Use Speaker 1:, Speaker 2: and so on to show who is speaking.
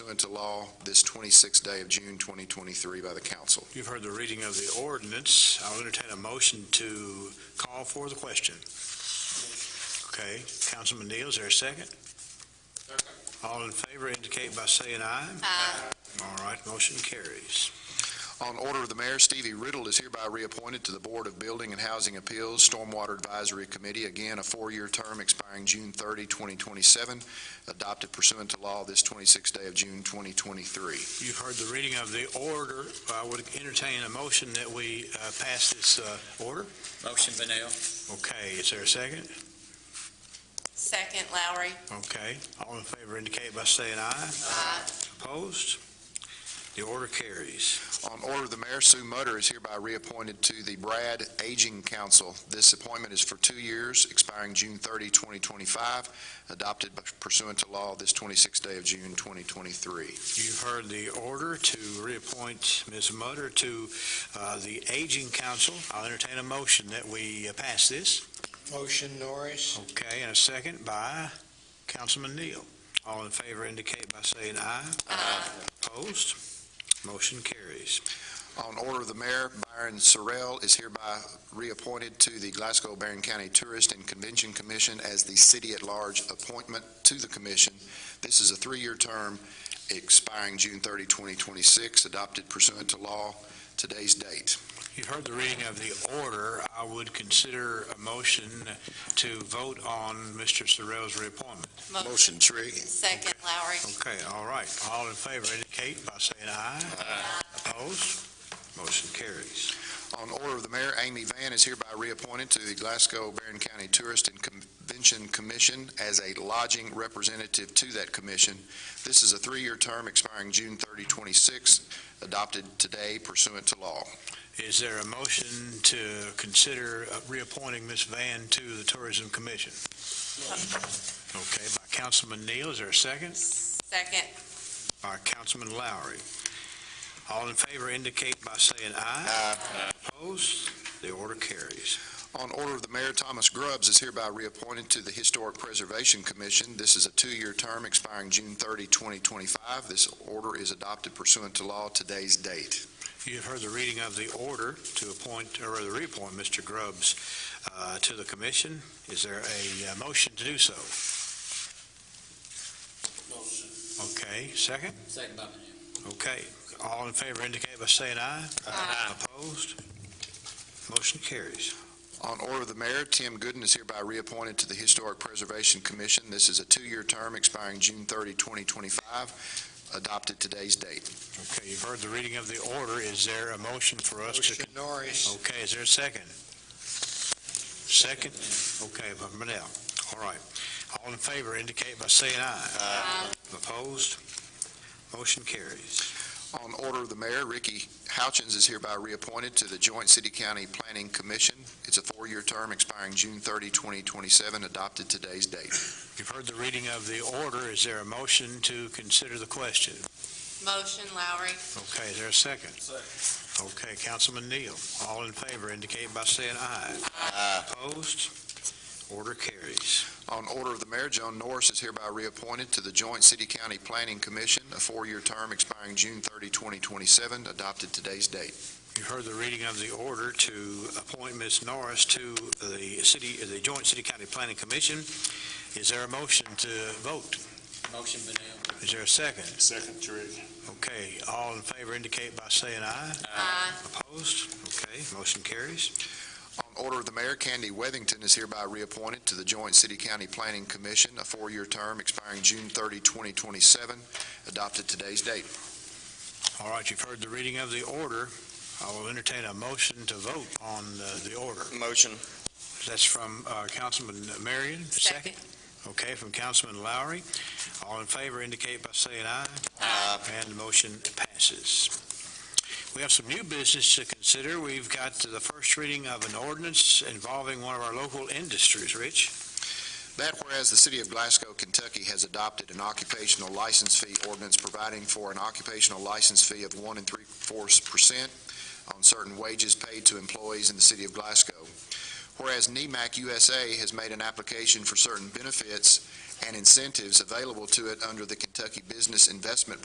Speaker 1: amendment to law this 26th day of June 2023 by the council.
Speaker 2: You've heard the reading of the ordinance. I'll entertain a motion to call for the question. Okay, Councilman Neal, is there a second? All in favor indicate by saying aye.
Speaker 3: Aye.
Speaker 2: All right, motion carries.
Speaker 1: On order of the mayor, Stevie Riddle is hereby reappointed to the Board of Building and Housing Appeals Stormwater Advisory Committee, again, a four-year term expiring June 30, 2027, adopted pursuant to law this 26th day of June 2023.
Speaker 2: You've heard the reading of the order. I would entertain a motion that we uh, pass this uh, order.
Speaker 4: Motion, Vanel.
Speaker 2: Okay, is there a second?
Speaker 3: Second, Lowry.
Speaker 2: Okay, all in favor indicate by saying aye.
Speaker 3: Aye.
Speaker 2: Opposed? The order carries.
Speaker 1: On order of the mayor, Sue Mutter is hereby reappointed to the Brad Aging Council. This appointment is for two years, expiring June 30, 2025, adopted pursuant to law this 26th day of June 2023.
Speaker 2: You've heard the order to reappoint Ms. Mutter to uh, the Aging Council. I'll entertain a motion that we uh, pass this.
Speaker 5: Motion Norris.
Speaker 2: Okay, and a second by Councilman Neal. All in favor indicate by saying aye.
Speaker 3: Aye.
Speaker 2: Opposed? Motion carries.
Speaker 1: On order of the mayor, Byron Sorrell is hereby reappointed to the Glasgow Barron County Tourist and Convention Commission as the city-at-large appointment to the commission. This is a three-year term expiring June 30, 2026, adopted pursuant to law today's date.
Speaker 2: You've heard the reading of the order. I would consider a motion to vote on Mr. Sorrell's reappointment.
Speaker 3: Motion.
Speaker 1: Trigg.
Speaker 3: Second, Lowry.
Speaker 2: Okay, all right. All in favor indicate by saying aye.
Speaker 3: Aye.
Speaker 2: Opposed? Motion carries.
Speaker 1: On order of the mayor, Amy Van is hereby reappointed to the Glasgow Barron County Tourist and Convention Commission as a lodging representative to that commission. This is a three-year term expiring June 30, 26, adopted today pursuant to law.
Speaker 2: Is there a motion to consider uh, reappointing Ms. Van to the Tourism Commission? Okay, by Councilman Neal, is there a second?
Speaker 3: Second,
Speaker 2: By Councilman Lowry. All in favor indicate by saying aye. Opposed? The order carries.
Speaker 1: On order of the mayor, Thomas Grubbs is hereby reappointed to the Historic Preservation Commission. This is a two-year term expiring June 30, 2025. This order is adopted pursuant to law today's date.
Speaker 2: You have heard the reading of the order to appoint, or to reappoint Mr. Grubbs uh, to the commission. Is there a uh, motion to do so?
Speaker 4: Motion.
Speaker 2: Okay, second?
Speaker 4: Second by Vanel.
Speaker 2: Okay, all in favor indicate by saying aye.
Speaker 3: Aye.
Speaker 2: Opposed? Motion carries.
Speaker 1: On order of the mayor, Tim Gooden is hereby reappointed to the Historic Preservation Commission. This is a two-year term expiring June 30, 2025, adopted today's date.
Speaker 2: Okay, you've heard the reading of the order. Is there a motion for us to?
Speaker 5: Motion Norris.
Speaker 2: Okay, is there a second? Second? Okay, by Manel. All right. All in favor indicate by saying aye.
Speaker 3: Aye.
Speaker 2: Opposed? Motion carries.
Speaker 1: On order of the mayor, Ricky Houchins is hereby reappointed to the Joint City-County Planning Commission. It's a four-year term expiring June 30, 2027, adopted today's date.
Speaker 2: You've heard the reading of the order. Is there a motion to consider the question?
Speaker 3: motion, Lowry.
Speaker 2: Okay, is there a second? Second. Okay, Councilman Neal, all in favor indicate by saying aye. Aye. Opposed? Order carries.
Speaker 1: On order of the mayor, Joan Norris is hereby reappointed to the Joint City-County Planning Commission, a four-year term expiring June 30, 2027, adopted today's date.
Speaker 2: You've heard the reading of the order to appoint Ms. Norris to the city, the Joint City County Planning Commission. Is there a motion to vote?
Speaker 4: Motion, Vanel.
Speaker 2: Is there a second?
Speaker 6: Second, Trigg.
Speaker 2: Okay, all in favor indicate by saying aye.
Speaker 3: Aye.
Speaker 2: Opposed? Okay, motion carries.
Speaker 1: On order of the mayor, Candy Wethington is hereby reappointed to the Joint City-County Planning Commission, a four-year term expiring June 30, 2027, adopted today's date.
Speaker 2: All right, you've heard the reading of the order. I will entertain a motion to vote on uh, the order.
Speaker 7: Motion.
Speaker 2: That's from uh, Councilman Marion.
Speaker 3: Second.
Speaker 2: Okay, from Councilman Lowry. All in favor indicate by saying aye.
Speaker 3: Aye.
Speaker 2: And the motion passes. We have some new business to consider. We've got the first reading of an ordinance involving one of our local industries. Rich?
Speaker 1: That whereas the city of Glasgow, Kentucky has adopted an occupational license fee ordinance providing for an occupational license fee of one and three-fourths percent on certain wages paid to employees in the city of Glasgow. Whereas E NEMAC USA has made an application for certain benefits and incentives available to it under the Kentucky Business Investment